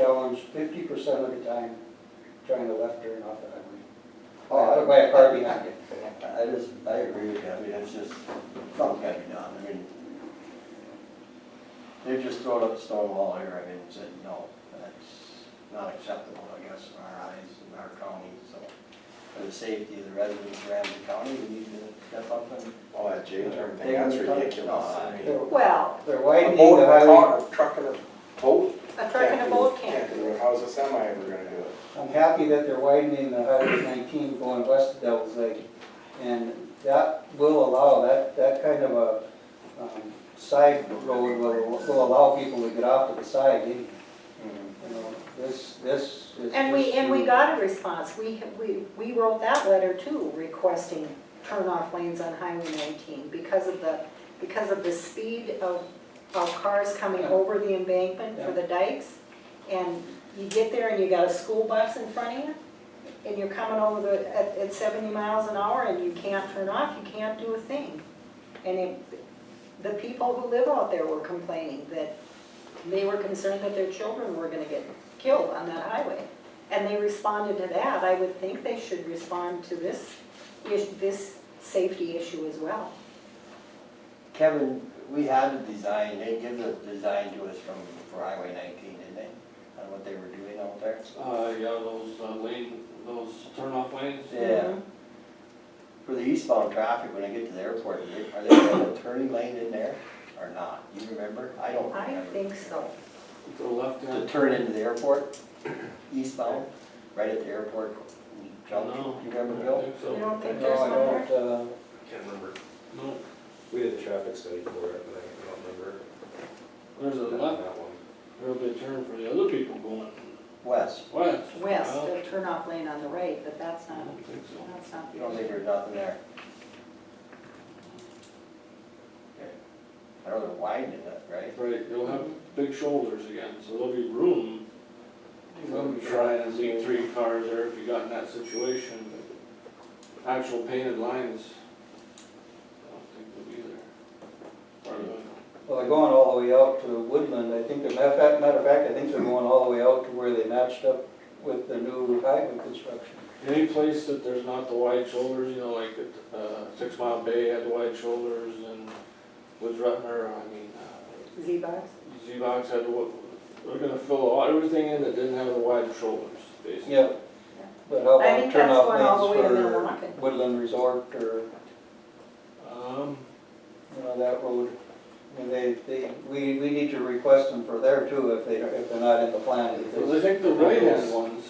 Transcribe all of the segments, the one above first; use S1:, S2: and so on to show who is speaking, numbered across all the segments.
S1: challenged fifty percent of the time trying to left turn off the highway. Oh,
S2: Oh,
S1: I put my car behind it.
S2: I just, I agree with you, I mean, it's just, something gotta be done, I mean. They've just thrown up a stone wall here, I mean, said, no, that's not acceptable, I guess, in our eyes, in our county, so. For the safety of the residents of Ramsey County, we need to step up and.
S3: Oh, that J-turn thing,
S2: Take
S3: that's
S2: them to-
S3: ridiculous. I mean,
S1: They're
S4: Well,
S1: they're
S3: A
S1: widening
S3: boat,
S1: the
S3: a
S1: highway.
S3: car, a truck and a boat?
S4: a truck and a boat can't
S3: Can't
S4: do
S3: do
S4: it.
S3: it, how's a semi ever gonna do it?
S1: I'm happy that they're widening the Highway nineteen going west of Devil's Lake. And that will allow, that, that kind of a, um, side road will, will allow people to get off to the side, you know, this, this is.
S4: And we,
S1: just-
S4: and we got a response, we, we, we wrote that letter too, requesting turn-off lanes on Highway 19 because of the, because of the speed of, of cars coming over the embankment for the dikes. And you get there and you got a school bus in front of you, and you're coming over the, at, at 70 miles an hour and you can't turn off, you can't do a thing. And it, the people who live out there were complaining that they were concerned that their children were gonna get killed on that highway. And they responded to that, I would think they should respond to this, is- this safety issue as well.
S2: Kevin, we had a design, they give the design to us from, for Highway nineteen, didn't they? On what they were doing out there?
S5: Uh, yeah, those uh, lane, those turnoff lanes.
S2: Yeah. For the eastbound traffic, when I get to the airport, are they- are they going a turning lane in there or not? You remember? I don't
S4: I
S2: remember.
S4: think so.
S5: The left
S2: To
S5: hand,
S2: turn into the airport, eastbound, right at the airport junction,
S5: No.
S2: you remember,
S5: I
S2: Bill?
S5: think
S4: You
S5: so.
S4: don't think
S1: No,
S4: there's
S1: I
S4: one there?
S1: don't, uh,
S6: Can't remember.
S5: No,
S6: We did a traffic study for it, but I don't remember.
S5: there's a left,
S6: That one.
S5: there'll be a turn for the other people going
S2: West.
S5: west.
S4: West,
S5: Well,
S4: a turnoff lane on the right, but that's
S5: I
S4: not,
S5: don't think so.
S4: that's not
S2: You
S4: the
S2: don't think
S4: issue.
S2: there's nothing there? Okay. I know they're widening it, right?
S5: Right, you'll have big shoulders again, so there'll be room. You'll try and leave three cars there if you got in that situation, but actual painted lines, I don't think will be there. Or the-
S1: well, they're going all the way out to Woodland, I think, they're- matter of fact, matter of fact, I think they're going all the way out to where they matched up with the new highway construction.
S5: Any place that there's not the wide shoulders, you know, like at, uh, Six Mile Bay had the wide shoulders and Woods Rutner, I mean, uh,
S4: Z-Box?
S5: Z-Box had, what, we're gonna fill all, everything in that didn't have the wide shoulders, basically.
S1: Yeah, but how
S4: I
S1: about
S4: think
S1: turn
S4: that's
S1: off
S4: going all the way to
S1: lanes
S4: Milwaukee.
S1: for Woodland Resort or,
S5: Um,
S1: you know, that road? I mean, they, they, we, we need to request them for there too, if they, if they're not in the plan.
S5: because I
S1: because-
S5: think the right-hand ones,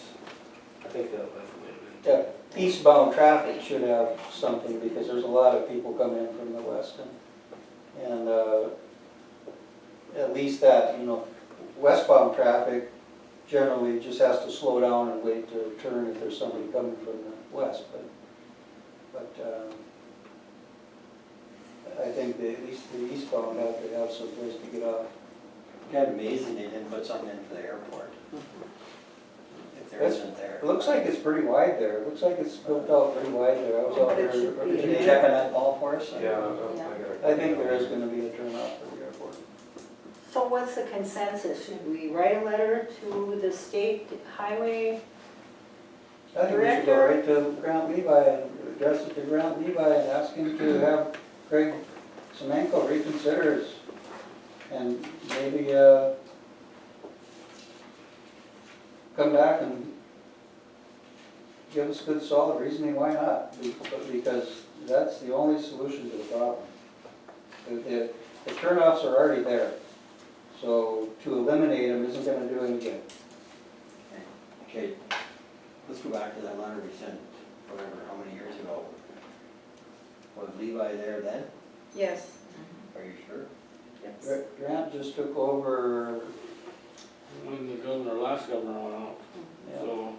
S6: I think that left one.
S1: Yeah, Eastbound traffic should have something, because there's a lot of people coming in from the west and, and, uh, at least that, you know, westbound traffic generally just has to slow down and wait to turn if there's somebody coming from the west, but, but, um, I think the, at least the eastbound have to have some place to get off.
S2: Kind of amazing they didn't put something in for the airport. If there
S1: That's-
S2: isn't there.
S1: It looks like it's pretty wide there, it looks like it's built out pretty wide there, I was out there.
S4: It should be.
S2: Can you check on that ball for us?
S6: Yeah, I- I gotta-
S1: I think there is gonna be a turnoff for the airport.
S4: So what's the consensus? Should we write a letter to the state highway
S1: I think we should go right to Grant Levi and address it to Grant Levi and ask him to have Craig Semenko reconsider his, and maybe, uh, come back and give us good solid reasoning why not, be- because that's the only solution to the problem. The, the, the turnoffs are already there, so to eliminate them isn't gonna do any good.
S2: Okay, let's go back to that letter we sent, whatever, how many years ago? Was Levi there then?
S4: Yes.
S2: Are you sure?
S4: Yes.
S1: Gra- Grant just took over
S5: when the governor, last governor went out,
S1: Yeah,
S5: so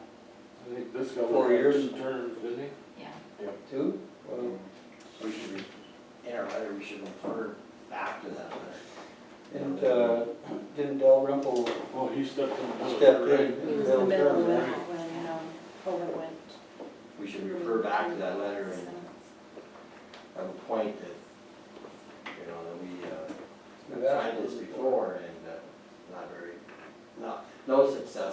S5: I think this
S1: Four
S5: governor had
S1: years.
S5: two terms, didn't he?
S1: two? Well,
S2: We should, re- in our letter, we should refer back to that letter.
S1: Didn't, uh, didn't Dalrymple
S5: Oh, he stepped in. the middle,
S1: step in?
S5: right?
S1: in
S4: He was in the middle of
S1: term,
S4: it
S1: right?
S4: when, um, COVID went.
S2: We should refer back to that letter and have a point that, you know, that we, uh,
S1: We've
S2: tried
S1: asked
S2: this before and uh, not very no, no success.